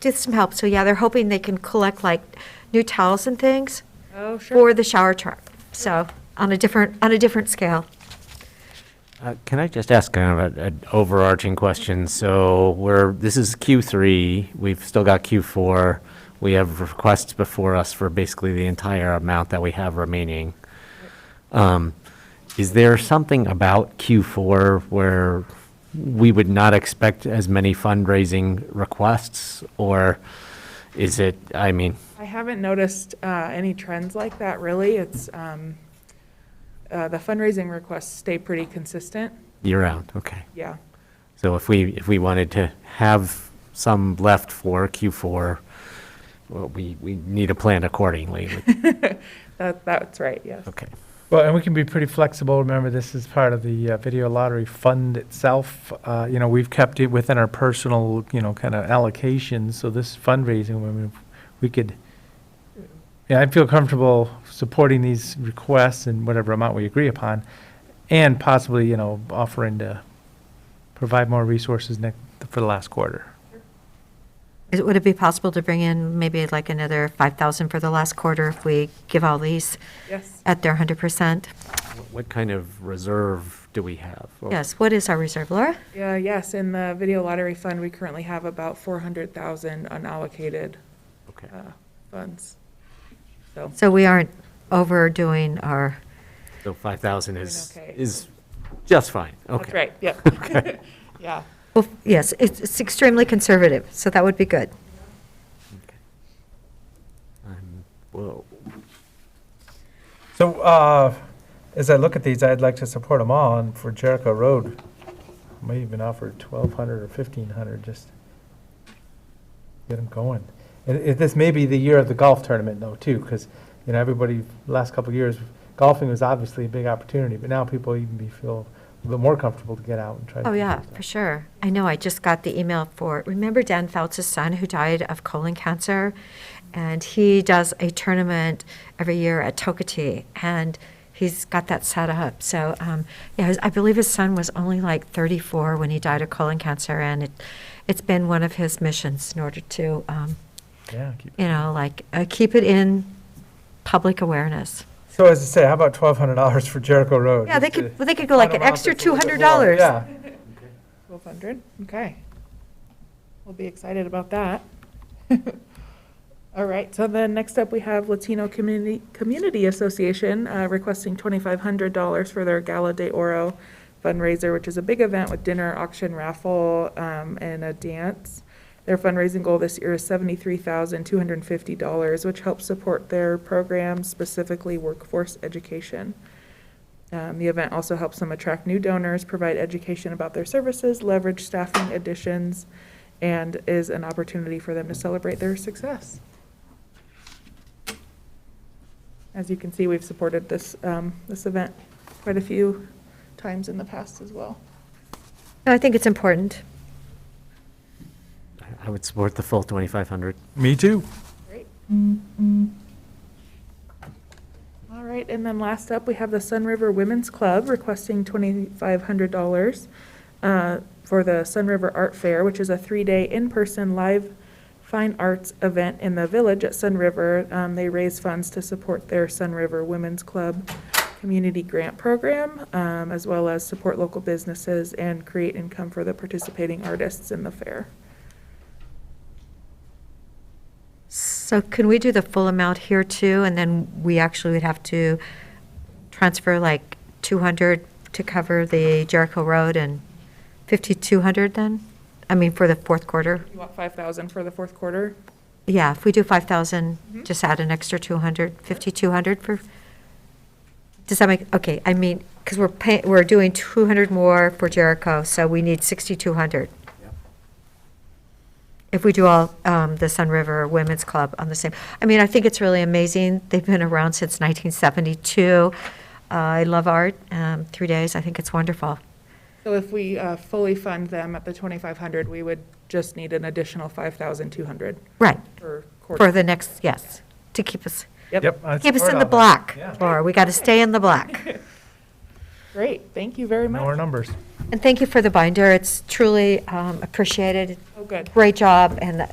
get some help. So yeah, they're hoping they can collect like new towels and things Oh, sure. for the shower truck. So on a different, on a different scale. Uh, Can I just ask kind of a- an overarching question? So we're, this is Q3, we've still got Q4. We have requests before us for basically the entire amount that we have remaining. Um, Is there something about Q4 where we would not expect as many fundraising requests? Or is it, I mean, I haven't noticed uh, any trends like that, really. It's, um, uh, the fundraising requests stay pretty consistent, year-round, okay. yeah. So if we, if we wanted to have some left for Q4, well, we, we need to plan accordingly. That, that's right, yes. Okay. Well, and we can be pretty flexible. Remember, this is part of the uh, video lottery fund itself. Uh, You know, we've kept it within our personal, you know, kind of allocations, so this fundraising, I mean, we could, yeah, I feel comfortable supporting these requests in whatever amount we agree upon, and possibly, you know, offering to provide more resources next, for the last quarter. Is- Would it be possible to bring in maybe like another 5,000 for the last quarter if we give all these Yes. at their 100%? What kind of reserve do we have? Oh, Or- Yes, what is our reserve, Laura? Yeah, yes, in the video lottery fund, we currently have about 400,000 unallocated Okay. uh, funds. So, So we aren't overdoing our, So 5,000 is, Doing okay. is just fine. Okay. that's right, yeah. Yeah. well, yes, it's it's extremely conservative, so that would be good. Okay. Um, Well, So, uh, as I look at these, I'd like to support them all, and for Jericho Road, I may even offer twelve hundred or fifteen hundred, just get them going. It, it, this may be the year of the golf tournament though, too, because, you know, everybody, last couple of years, golfing was obviously a big opportunity, but now people even be feel a little more comfortable to get out and try. to Oh, do yeah, stuff. for sure. I know, I just got the email for, remember Dan Fouts' son who died of colon cancer? And he does a tournament every year at Tokati, and he's got that set up. So, um, yeah, his- I believe his son was only like 34 when he died of colon cancer, and it, it's been one of his missions in order to, um, Yeah. keep- you know, like, uh, keep it in public awareness. So as I say, how about twelve hundred dollars for Jericho Road? Yeah, they just to could, well, they could go like cut an 'em off extra just a little bit more. $200. Yeah. 1,200, okay. We'll be excited about that. All right, so then next up, we have Latino Community, Community Association uh, requesting $2,500 for their Gala de Oro fundraiser, which is a big event with dinner, auction, raffle, um, and a dance. Their fundraising goal this year is $73,250, which helps support their programs, specifically workforce education. Um, the event also helps them attract new donors, provide education about their services, leverage staffing additions, and is an opportunity for them to celebrate their success. As you can see, we've supported this, um, this event quite a few times in the past as well. No, I think it's important. I- I would support the full 2,500. Me too. Great. All right, and then last up, we have the Sun River Women's Club requesting $2,500 uh, for the Sun River Art Fair, which is a three-day in-person live fine arts event in the village at Sun River. Um, They raise funds to support their Sun River Women's Club Community Grant Program, um, as well as support local businesses and create income for the participating artists in the fair. So can we do the full amount here too, and then we actually would have to transfer like 200 to cover the Jericho Road and 5,200 then? I mean, for the fourth quarter? You want 5,000 for the fourth quarter? Yeah, if we do 5,000, Mhm. just add an extra 200, 5,200 for, does that make, okay, I mean, because we're paying, we're doing 200 more for Jericho, so we need 6,200. If we do all, um, the Sun River Women's Club on the same, I mean, I think it's really amazing. They've been around since 1972. Uh, I love art, um, three days, I think it's wonderful. So if we uh, fully fund them at the 2,500, we would just need an additional 5,200 Right, per for quarter. the next, yes, to keep us, Yep, I'd keep us support in all the that. black, Yeah. Laura, we got to stay in the black. great, thank you very Know our much. numbers. And thank you for the binder. It's truly um, appreciated. Oh, good. Great job, and